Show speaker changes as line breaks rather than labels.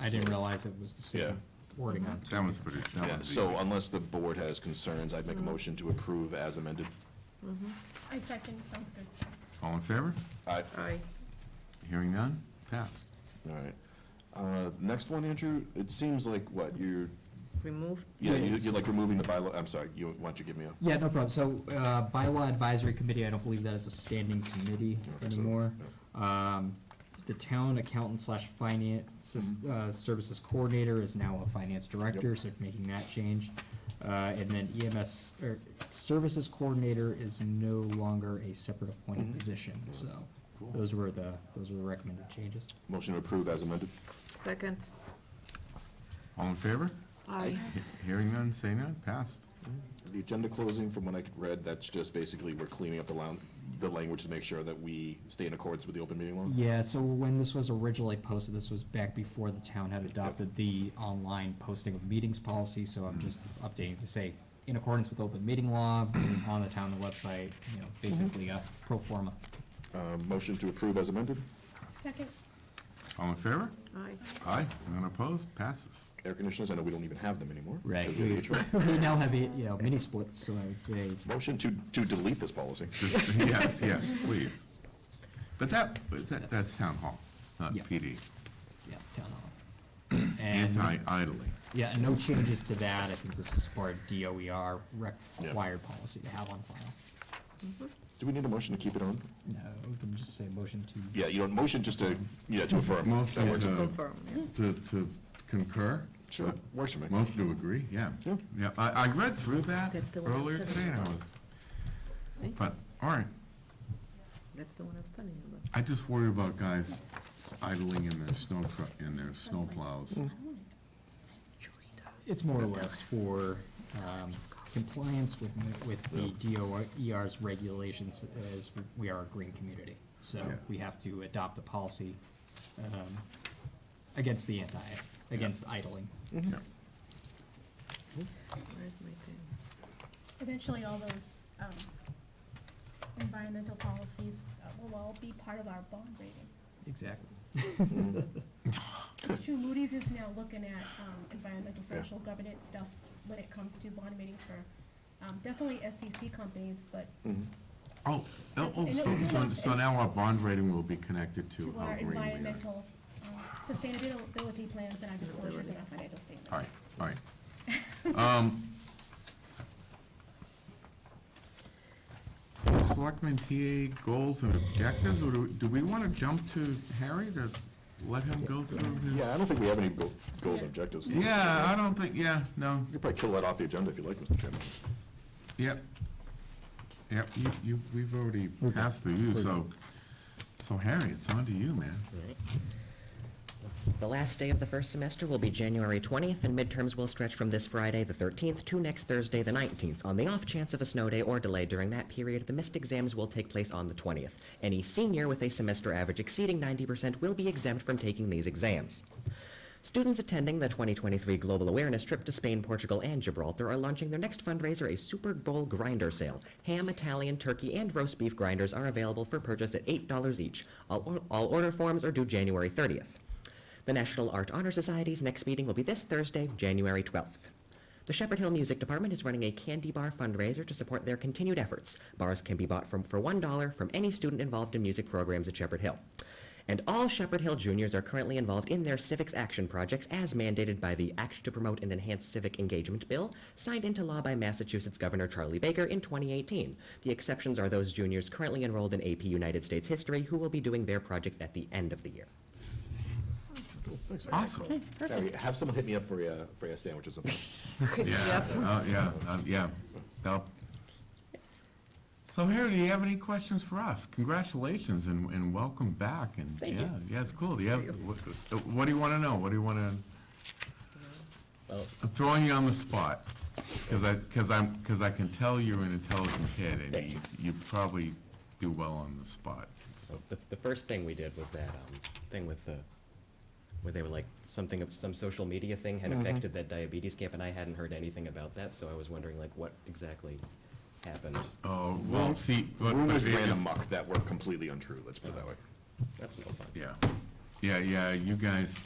I didn't realize it was the
Yeah.
same wording on two.
That one's pretty, that
Yeah,
one's easy.
so unless the board has concerns, I'd make a motion to approve as amended.
I second, sounds good.
All in favor?
Aye.
Aye.
Hearing none? Passed.
All right. Uh, Next one, Andrew, it seems like, what, you're,
Remove,
yeah, you-
Yes.
you're like removing the bylaw, I'm sorry, you, why don't you give me a?
Yeah, no problem. So, uh, bylaw advisory committee, I don't believe that is a standing committee
I don't think so.
anymore. Um, the town accountant slash finance,
Mm-hmm.
uh, services coordinator is now a finance director, so making that change. Uh, and then EMS, or er, services coordinator is no longer a separate appointed position, so
Mm-hmm. Cool.
those were the, those were the recommended changes.
Motion to approve as amended.
second.
All in favor?
Aye.
He- Hearing none, say none? Passed.
The agenda closing, from what I could read, that's just basically we're cleaning up the loun, the language to make sure that we stay in accordance with the open meeting law.
Yeah, so when this was originally posted, this was back before the town had adopted the online posting of meetings policy, so I'm just updating to say, in accordance with open meeting law, on the town website, you know, basically a pro forma.
Uh, Motion to approve as amended.
Second,
All in favor?
Aye.
Aye. None opposed? Passes.
Air conditioners, I know we don't even have them anymore.
Right.
'cause
We
of the HVAC.
we now have, you know, mini splits, so I would say,
Motion to, to delete this policy.
Yes, yes, please. But that, but that, that's town hall, not
Yeah.
PD.
yeah, town hall. And-
Anti-idling.
Yeah, and no changes to that, I think this is for a DOER required policy to have on file.
Do we need a motion to keep it on?
No, we can just say motion to
Yeah, you don't, motion just to, yeah, to affirm.
Motion
That works.
to-
Confirm, yeah.
To, to concur?
Sure, works for me.
Most do agree, yeah.
Yeah.
Yeah, I, I read through that
That's the one I was
earlier
telling
today, and I was,
See?
but, all right.
That's the one I was telling you about.
I just worry about guys idling in their snow truck, in their snow plows.
Mm-hmm.
It's more or less for um, compliance with, with the DOER's regulations as we are a green community. So
Yeah.
we have to adopt a policy um, against the anti, against idling.
Yeah.
Where's my pen?
eventually all those, um, environmental policies uh, will all be part of our bond rating.
Exactly.
It's true, Moody's is now looking at, um, environmental, social, governance stuff when it comes to bond ratings for, um, definitely SEC companies, but
Oh, oh, oh,
And
so,
it's
so,
soon
so
as-
now our bond rating will be connected to
to
how
our
green we are.
environmental, um, sustainability plans and our disclosures in our financial statements.
All right, all right. Um, Selectmen TA goals and objectives, or do, we- do we want to jump to Harry to let him go through his?
Yeah, I don't think we have any go- goals and objectives.
Yeah, I don't think, yeah, no,
You could probably kill that off the agenda if you like, Mr. Chairman.
yep. Yep, you, you, we've already passed through you, so, so Harry, it's on to you, man.
The last day of the first semester will be January 20th, and midterms will stretch from this Friday, the 13th, to next Thursday, the 19th. On the off chance of a snow day or delay during that period, the missed exams will take place on the 20th. Any senior with a semester average exceeding 90% will be exempt from taking these exams. Students attending the 2023 Global Awareness trip to Spain, Portugal, and Gibraltar are launching their next fundraiser, a Super Bowl grinder sale. Ham, Italian, turkey, and roast beef grinders are available for purchase at $8 each. All, or- all order forms are due January 30th. The National Art Honor Society's next meeting will be this Thursday, January 12th. The Shepherd Hill Music Department is running a candy bar fundraiser to support their continued efforts. Bars can be bought from, for $1 from any student involved in music programs at Shepherd Hill. And all Shepherd Hill juniors are currently involved in their civics action projects as mandated by the Act to Promote and Enhance Civic Engagement Bill, signed into law by Massachusetts Governor Charlie Baker in 2018. The exceptions are those juniors currently enrolled in AP United States History who will be doing their project at the end of the year.
Awesome,
Harry, have someone hit me up for a, for a sandwich or something.
yeah, oh, yeah, uh, yeah, That'll- So Harry, do you have any questions for us? Congratulations and, and welcome back, and,
Thank you.
yeah, yeah, it's cool, do you have, what, uh, what do you wanna know, what do you wanna?
Well-
I'm throwing you on the spot, cause I, cause I'm, cause I can tell you're an intelligent kid, and you, you probably do well on the spot.
So the, the first thing we did was that um, thing with the, where they were like, something, of- some social media thing had affected that diabetes camp, and I hadn't heard anything about that, so I was wondering like what exactly happened.
Oh, well, see, but. but
Rumors
it-
ran
it's-
amok that were completely untrue, let's put it that way.
That's no fun.
Yeah, yeah, yeah, you guys,